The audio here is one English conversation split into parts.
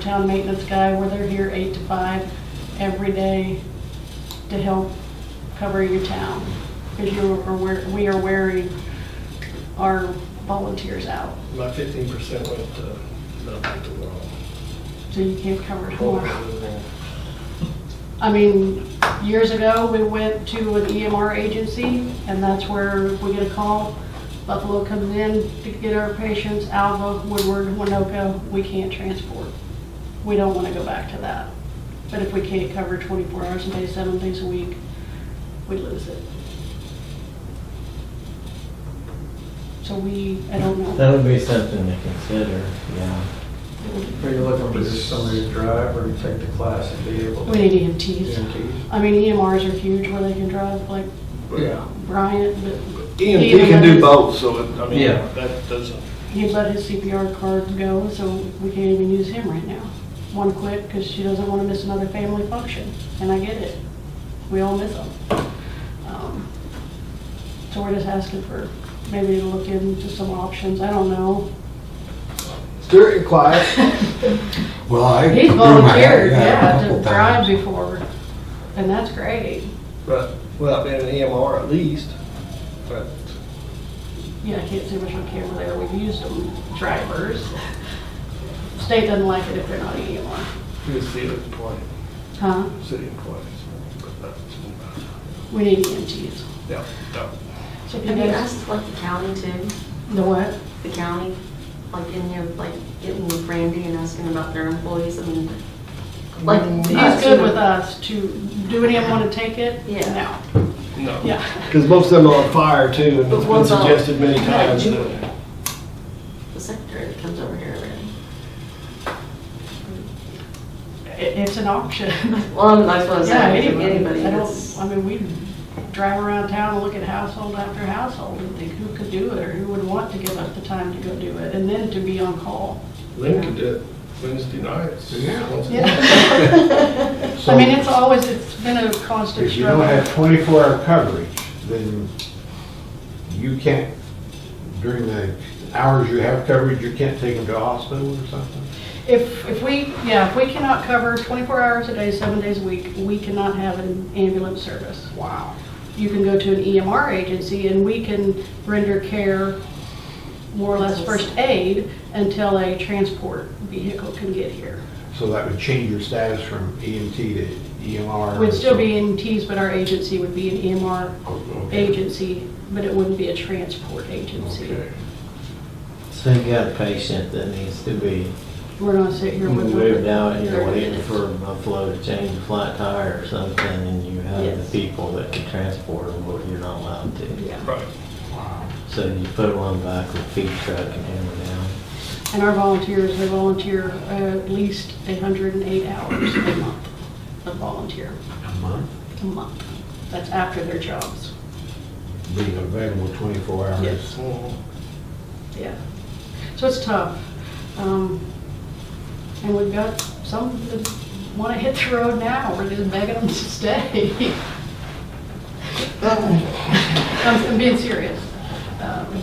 town maintenance guy, where they're here eight to five every day to help cover your town. Because you are, wear- we are wearing our volunteers out, My fifteen percent went to, not back to work. so you can't cover it all. Oh, Well, I mean, years ago, we went to an EMR agency, and that's where we get a call. Buffalo comes in to get our patients, Alva, Woodward, Winoka, we can't transport. We don't want to go back to that. But if we can't cover 24 hours a day, seven days a week, we lose it. So we, I don't know. That would be something to consider, yeah. Are you looking for just somebody to drive or take the class and be able to? We need EMTs. EMTs? I mean, EMRs are huge where they can drive, like Yeah. Bryant, but EMT E can do both, so, it- I mean, Yeah. that doesn't, He let his CPR card go, so we can't even use him right now. One quit because she doesn't want to miss another family function, and I get it. We all miss them. Um, So we're just asking for maybe to look into some options, I don't know. Stuart, you're quiet. Well, I. He's threw my hat- volunteered, a yeah, couple to drive times. before, and that's great. but without being an EMR at least, but Yeah, I can't see much on camera there, we've used them, drivers. State doesn't like it if they're not E EMR. you're city employee, Huh? city employees. but that's- We need E EMTs. Yeah, no. So if Have you guys- asked like the county too, The what? the county, like in your, like getting with Randy and asking about their employees, I mean, like. Mm, uh, He's us, you good know? with us to, do any of them want to take it? Yeah. No. No, yeah. Because most of them are on fire too, and it's But been one's on- suggested many times Yeah. that The secretary that comes over here every It, it's an option. day. Well, I'm- that's what I was Yeah, saying, anybody, anybody I that's, don't, I mean, we drive around town and look at household after household and think who could do it or who would want to give us the time to go do it and then to be on call. Lynn could do it Wednesday nights. Once a Yeah. month. I mean, it's always, it's been a constant If you don't struggle. have twenty-four hour coverage, then you can't, during the hours you have coverage, you can't take them to hospital or something? If, if we, yeah, if we cannot cover 24 hours a day, seven days a week, we cannot have an ambulance service. Wow. you can go to an EMR agency and we can render care, more or less first aid, until a transport vehicle can get here. So that would change your status from EMT to E EMR? We'd still be in T's, but our agency would be an EMR Oh, Okay. agency, but it wouldn't be a transport agency. Okay. So you got a patient that needs to be We're not sitting here with. moved out, and you're Thirty waiting minutes. for Buffalo to change a flat tire or something, and you have Yes. the people that can transport them, but you're not allowed to. Yeah. Right. Wow. So you put one back with feed truck and hammer down. And our volunteers, they volunteer uh, at least 108 hours a month, a volunteer, A month, a month. That's after their jobs. being available twenty-four hours? Yes. Mhm. Yeah, so it's tough. Um, And we've got some that want to hit the road now, we're just begging them to stay. I'm I'm being serious. Um,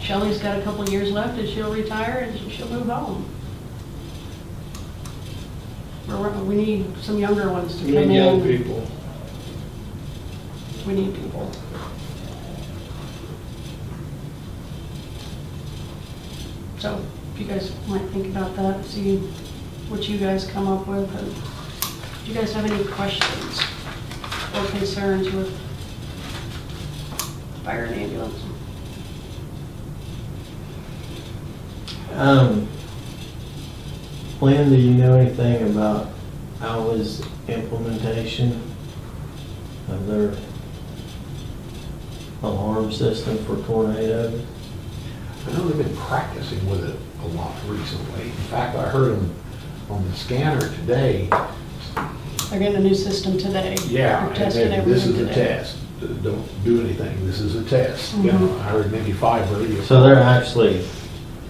Shelley's got a couple of years left, and she'll retire, and she'll move home. We're- We need some younger ones to We come in. need young people. We need people. So if you guys might think about that, see what you guys come up with. and Do you guys have any questions or concerns with fire and ambulance? Um, Lynn, do you know anything about hours implementation of their alarm system for tornadoes? I know they've been practicing with it a lot recently. In fact, I heard them on the scanner today, They're getting a new system today. Yeah, They're and testing then this everything is a today. test. Don't do anything, this is a test. You Mm-hmm. know, I heard maybe five radio. So they're actually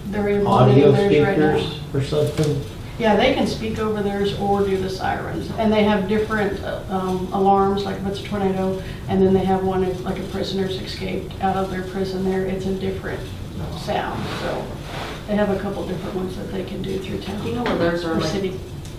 They're audio implementing theirs right now. speakers or something? Yeah, they can speak over theirs or do the sirens. And they have different uh, um, alarms, like if it's a tornado, and then they have one if like a prisoner's escaped out of their prison there, it's a different sound. So they have a couple different ones that they can do through you town know, where theirs are or like city.